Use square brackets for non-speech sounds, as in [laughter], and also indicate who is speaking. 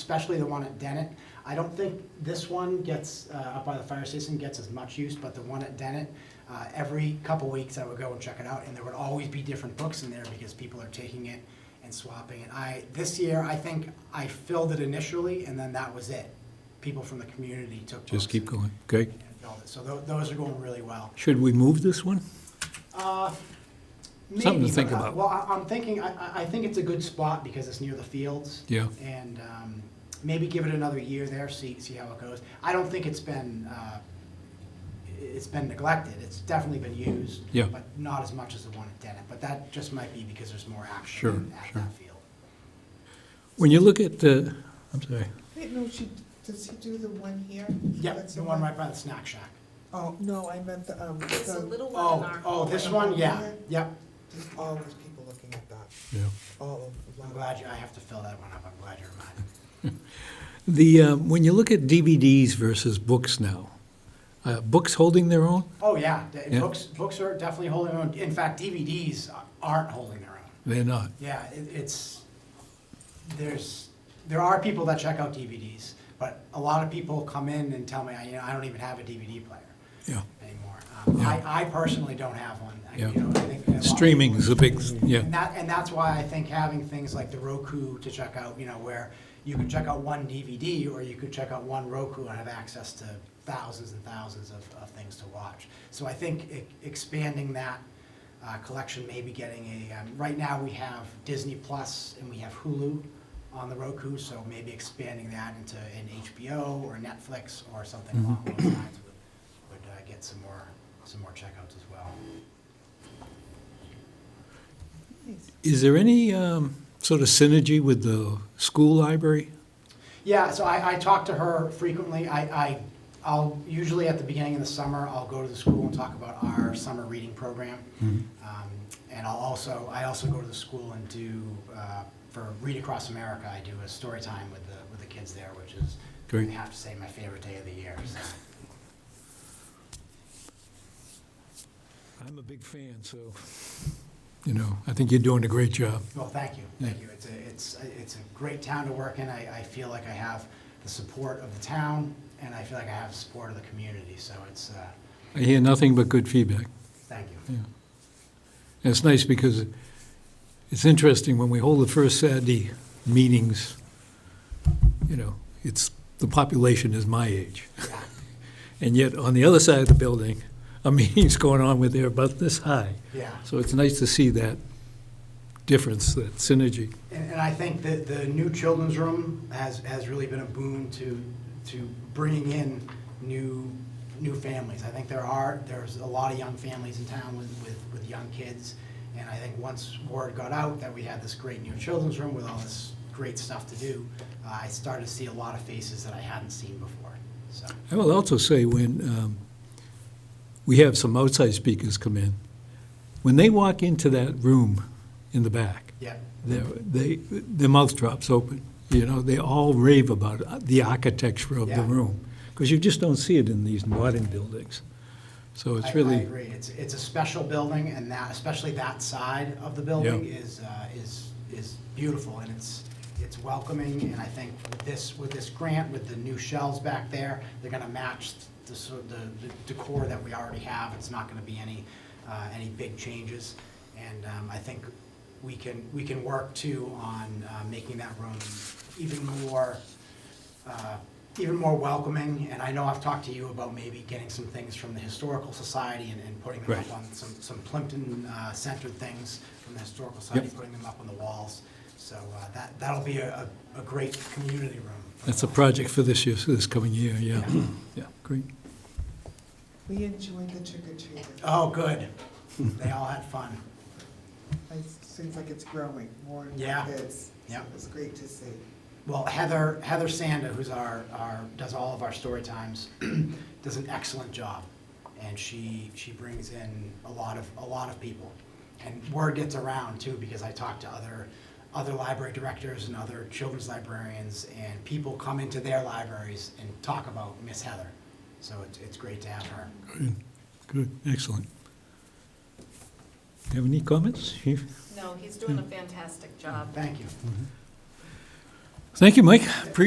Speaker 1: especially the one at Dennett. I don't think this one gets, uh, up by the fire station, gets as much use, but the one at Dennett, uh, every couple weeks I would go and check it out, and there would always be different books in there because people are taking it and swapping it. I, this year, I think I filled it initially, and then that was it. People from the community took books.
Speaker 2: Just keep going, okay?
Speaker 1: and filled it. So tho- those are going really well. Uh,
Speaker 2: Should we move this one? Something to
Speaker 1: Maybe,
Speaker 2: think
Speaker 1: but, uh,
Speaker 2: about.
Speaker 1: Well, I, I'm thinking, I, I- I think it's a good spot because it's near the fields.
Speaker 2: Yeah.
Speaker 1: And, um, maybe give it another year there, see, see how it goes. I don't think it's been, uh, i- it's been neglected. It's definitely been used.
Speaker 2: Yeah.
Speaker 1: But not as much as the one at Dennett, but that just might be because there's more
Speaker 2: Sure,
Speaker 1: action at
Speaker 2: sure.
Speaker 1: that field.
Speaker 2: When you look at the, I'm sorry,
Speaker 3: Wait, no, she, does he do the one here?
Speaker 1: Yeah,
Speaker 3: That's
Speaker 1: the one
Speaker 3: one-
Speaker 1: right by the snack shack.
Speaker 3: Oh, no, I meant the, um,
Speaker 4: It's a
Speaker 3: the,
Speaker 4: little one in
Speaker 1: Oh,
Speaker 4: our.
Speaker 1: oh, this one, yeah, yep.
Speaker 3: there's always people looking at that,
Speaker 2: yeah.
Speaker 3: all of
Speaker 1: I'm
Speaker 3: them.
Speaker 1: glad you, I have to fill that one up. I'm glad you reminded me.
Speaker 2: The, uh, when you look at DVDs versus books now, uh, books holding their own?
Speaker 1: Oh, yeah, the-
Speaker 2: Yeah.
Speaker 1: books, books are definitely holding their own. In fact, DVDs aren't holding their own.
Speaker 2: They're not.
Speaker 1: Yeah, it, it's, there's, there are people that check out DVDs, but a lot of people come in and tell me, I, you know, I don't even have a DVD player
Speaker 2: Yeah.
Speaker 1: anymore. Um, I, I personally don't have one. I- you
Speaker 2: Yeah.
Speaker 1: know, I think that a lot of
Speaker 2: Streaming
Speaker 1: people-
Speaker 2: is a big, yeah,
Speaker 1: And that, and that's why I think having things like the Roku to check out, you know, where you can check out one DVD or you could check out one Roku and have access to thousands and thousands of, of things to watch. So I think e- expanding that uh, collection, maybe getting a, um, right now we have Disney Plus and we have Hulu on the Roku, so maybe expanding that into an HBO or Netflix or something along those lines would, would uh, get some more, some more checkouts as well.
Speaker 3: Nice.
Speaker 2: Is there any um, sort of synergy with the school library?
Speaker 1: Yeah, so I, I talk to her frequently. I, I, I'll, usually at the beginning of the summer, I'll go to the school and talk about our summer reading program. Um, And I'll also, I also go to the school and do, uh, for Read Across America, I do a story time with the, with the kids there, which is,
Speaker 2: Great.
Speaker 1: I have to say, my favorite day of the year. so.
Speaker 2: I'm a big fan, so. You know, I think you're doing a great job.
Speaker 1: Well, thank you, thank you. It's a, it's, a- it's a great town to work in. I, I feel like I have the support of the town, and I feel like I have the support of the community, so it's, uh,
Speaker 2: I hear nothing but good feedback.
Speaker 1: thank you.
Speaker 2: Yeah. And it's nice because it's interesting, when we hold the first Saturday meetings, you know, it's, the population is my age. And yet, on the other side of the building, a [laughs] meeting's going on where they're about this high.
Speaker 1: Yeah.
Speaker 2: So it's nice to see that difference, that synergy.
Speaker 1: And, and I think that the new children's room has, has really been a boon to, to bringing in new, new families. I think there are, there's a lot of young families in town with, with, with young kids. And I think once word got out that we had this great new children's room with all this great stuff to do, uh, I started to see a lot of faces that I hadn't seen before, so.
Speaker 2: I will also say, when um, we have some outside speakers come in, when they walk into that room in the back,
Speaker 1: Yeah,
Speaker 2: their, they, their mouth drops open. You know, they all rave about it, the architecture of the
Speaker 1: Yeah.
Speaker 2: room, because you just don't see it in these modern buildings. So
Speaker 1: I,
Speaker 2: it's
Speaker 1: I
Speaker 2: really,
Speaker 1: agree. It's, it's a special building and that, especially that side of the building
Speaker 2: Yeah.
Speaker 1: is, uh, is, is beautiful and it's, it's welcoming. And I think with this, with this grant, with the new shells back there, they're gonna match the, sort of the the decor that we already have. It's not gonna be any, uh, any big changes. And, um, I think we can, we can work too on, uh, making that room even more, uh, even more welcoming, and I know I've talked to you about maybe getting some things from the Historical Society and, and putting them up
Speaker 2: Right.
Speaker 1: on some, some Plimpton-centered things from the Historical Society,
Speaker 2: Yep.
Speaker 1: putting them up on the walls. So uh, that, that'll be a, a a great community room. for
Speaker 2: that's a
Speaker 1: us.
Speaker 2: project for this year, this coming year, yeah. Yeah, great.
Speaker 3: We enjoyed the trick or treating,
Speaker 1: Oh, good. They all had fun.
Speaker 3: it seems like it's growing, more and more
Speaker 1: Yeah.
Speaker 3: kids.
Speaker 1: Yeah.
Speaker 3: It was great to see.
Speaker 1: Well, Heather, Heather Sanda, who's our, our, does all of our story times, [clears throat] does an excellent job. And she, she brings in a lot of, a lot of people. And word gets around too, because I talk to other, other library directors and other children's librarians, and people come into their libraries and talk about Miss Heather. So it's, it's great to have her.
Speaker 2: Good, Good, excellent. Have any comments? Chief?
Speaker 4: No, he's doing a fantastic job.
Speaker 1: Thank you.
Speaker 2: Thank you, Mike. Appreciate